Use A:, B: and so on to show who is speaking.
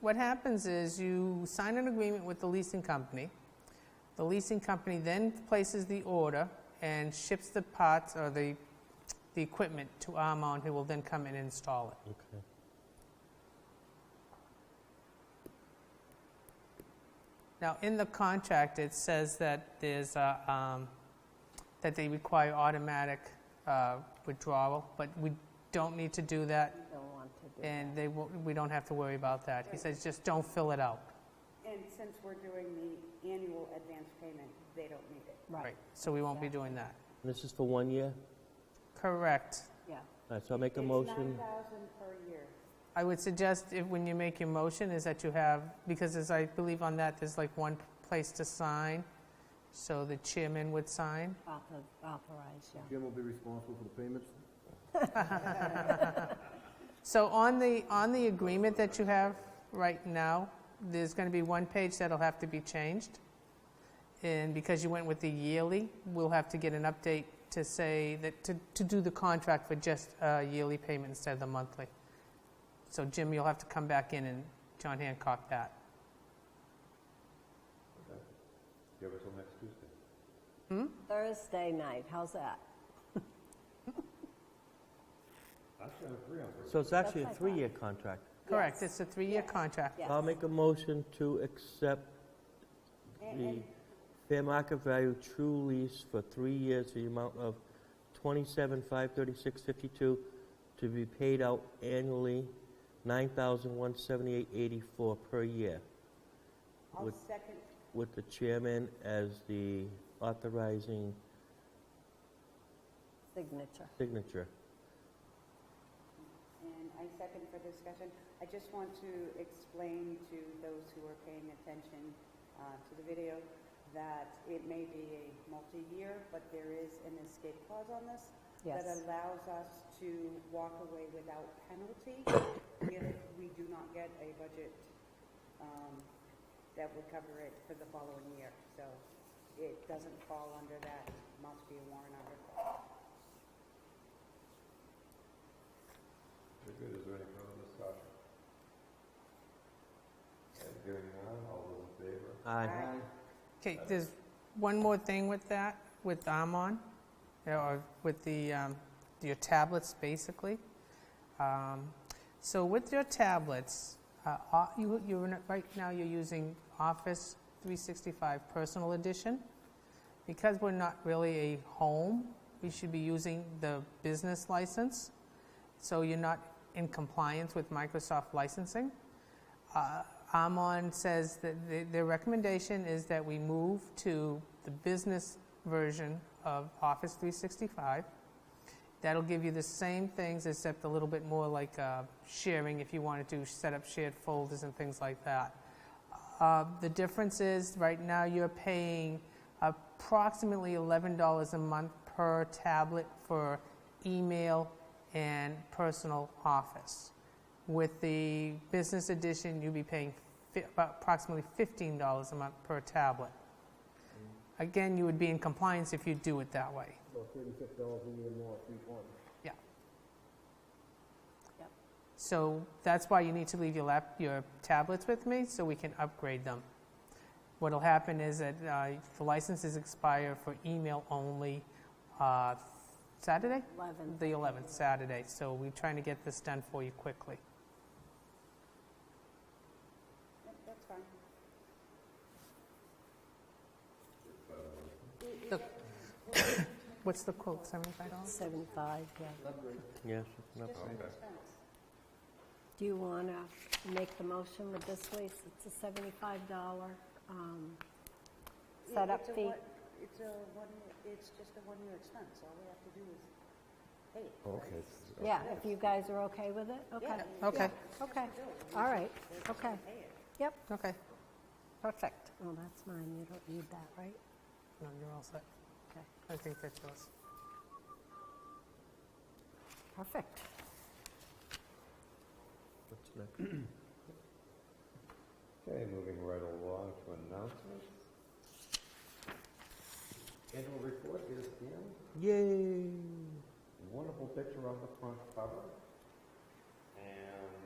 A: what happens is you sign an agreement with the leasing company. The leasing company then places the order and ships the parts or the, the equipment to Armon, who will then come and install it.
B: Okay.
A: Now, in the contract, it says that there's a, um, that they require automatic uh, withdrawal, but we don't need to do that,
C: Don't want to do that.
A: and they, won't- we don't have to worry about that. He says, just don't fill it out.
D: And since we're doing the annual advance payment, they don't need it.
C: Right,
A: So we won't be doing that.
B: This is for one year?
A: Correct.
C: yeah.
B: All right, so I'll make a motion.
D: It's nine thousand per year.
A: I would suggest, if, when you make your motion, is that you have, because as I believe on that, there's like one place to sign, so the chairman would sign.
C: Author- Authorize, yeah.
E: Jim will be responsible for the payments.
A: So on the, on the agreement that you have right now, there's going to be one page that'll have to be changed. And because you went with the yearly, we'll have to get an update to say that, to, to do the contract for just a yearly payment instead of the monthly. So Jim, you'll have to come back in and John Hancock that.
E: Give us till next Tuesday.
C: Thursday night, how's that?
E: Actually, I'm free on Thursday.
B: So it's actually a
C: That's my thought.
B: three-year contract.
A: Correct, it's
C: Yes.
A: a three-year
C: Yes.
A: contract.
C: Yes.
B: I'll make a motion to accept the fair market value true lease for three years, the amount of twenty-seven, five thirty-six, fifty-two, to be paid out annually, nine thousand, one seventy-eight, eighty-four per year,
D: I'll
B: Would-
D: second,
B: with the chairman as the authorizing
C: Signature.
B: signature.
D: and I second for discussion. I just want to explain to those who are paying attention uh, to the video that it may be a multi-year, but there is an escape clause on this that
C: Yes.
D: allows us to walk away without penalty if we do not get a budget um, that would cover it for the following year. So it doesn't fall under that, must be a warrant article.
E: Very good, is there any further discussion? Okay, Hearing none, all those in favor?
B: Aye.
D: Aye.
A: Okay, there's one more thing with that, with Amon, or with the, um, your tablets, basically. Um, So with your tablets, uh, o- you, you're, in- right now you're using Office 365 Personal Edition. Because we're not really a home, we should be using the business license, so you're not in compliance with Microsoft licensing. Uh, Amon says that the- their recommendation is that we move to the business version of Office 365. That'll give you the same things, except a little bit more like uh, sharing if you wanted to set up shared folders and things like that. Uh, The difference is, right now, you're paying approximately $11 a month per tablet for email and personal office. With the business edition, you'll be paying fi- about approximately $15 a month per tablet. Again, you would be in compliance if you do it that way.
E: About thirty-six dollars a year more, three point.
A: So that's why you need to leave your lap, your tablets with me so we can upgrade them. What'll happen is that uh, the licenses expire for email only uh, Saturday,
C: 11.
A: the 11th Saturday. So we're trying to get this done for you quickly.
D: Yep, That's fine.
A: What's the quote? $75.
C: 75, yeah.
B: Yes, no problem.
D: Just
E: Okay.
D: expense.
C: Do you want to make the motion with this lease? It's a $75 um,
D: It-
C: setup
D: it's a
C: fee.
D: one- It's a one, it's just a one-year expense, all we have to do is pay it.
E: Okay.
C: Yeah, if you guys are okay with it? Okay.
D: Yeah.
A: Okay.
C: Okay, all right, okay.
D: Pay it.
C: Yep,
A: Okay.
C: perfect. Oh, that's mine, you don't need that, right?
A: No, you're all set.
C: Okay,
A: I think that's yours.
C: perfect.
B: What's next?
E: Okay, moving right along to announcements. Annual report is in,
B: Yay!
E: wonderful picture on the front cover. And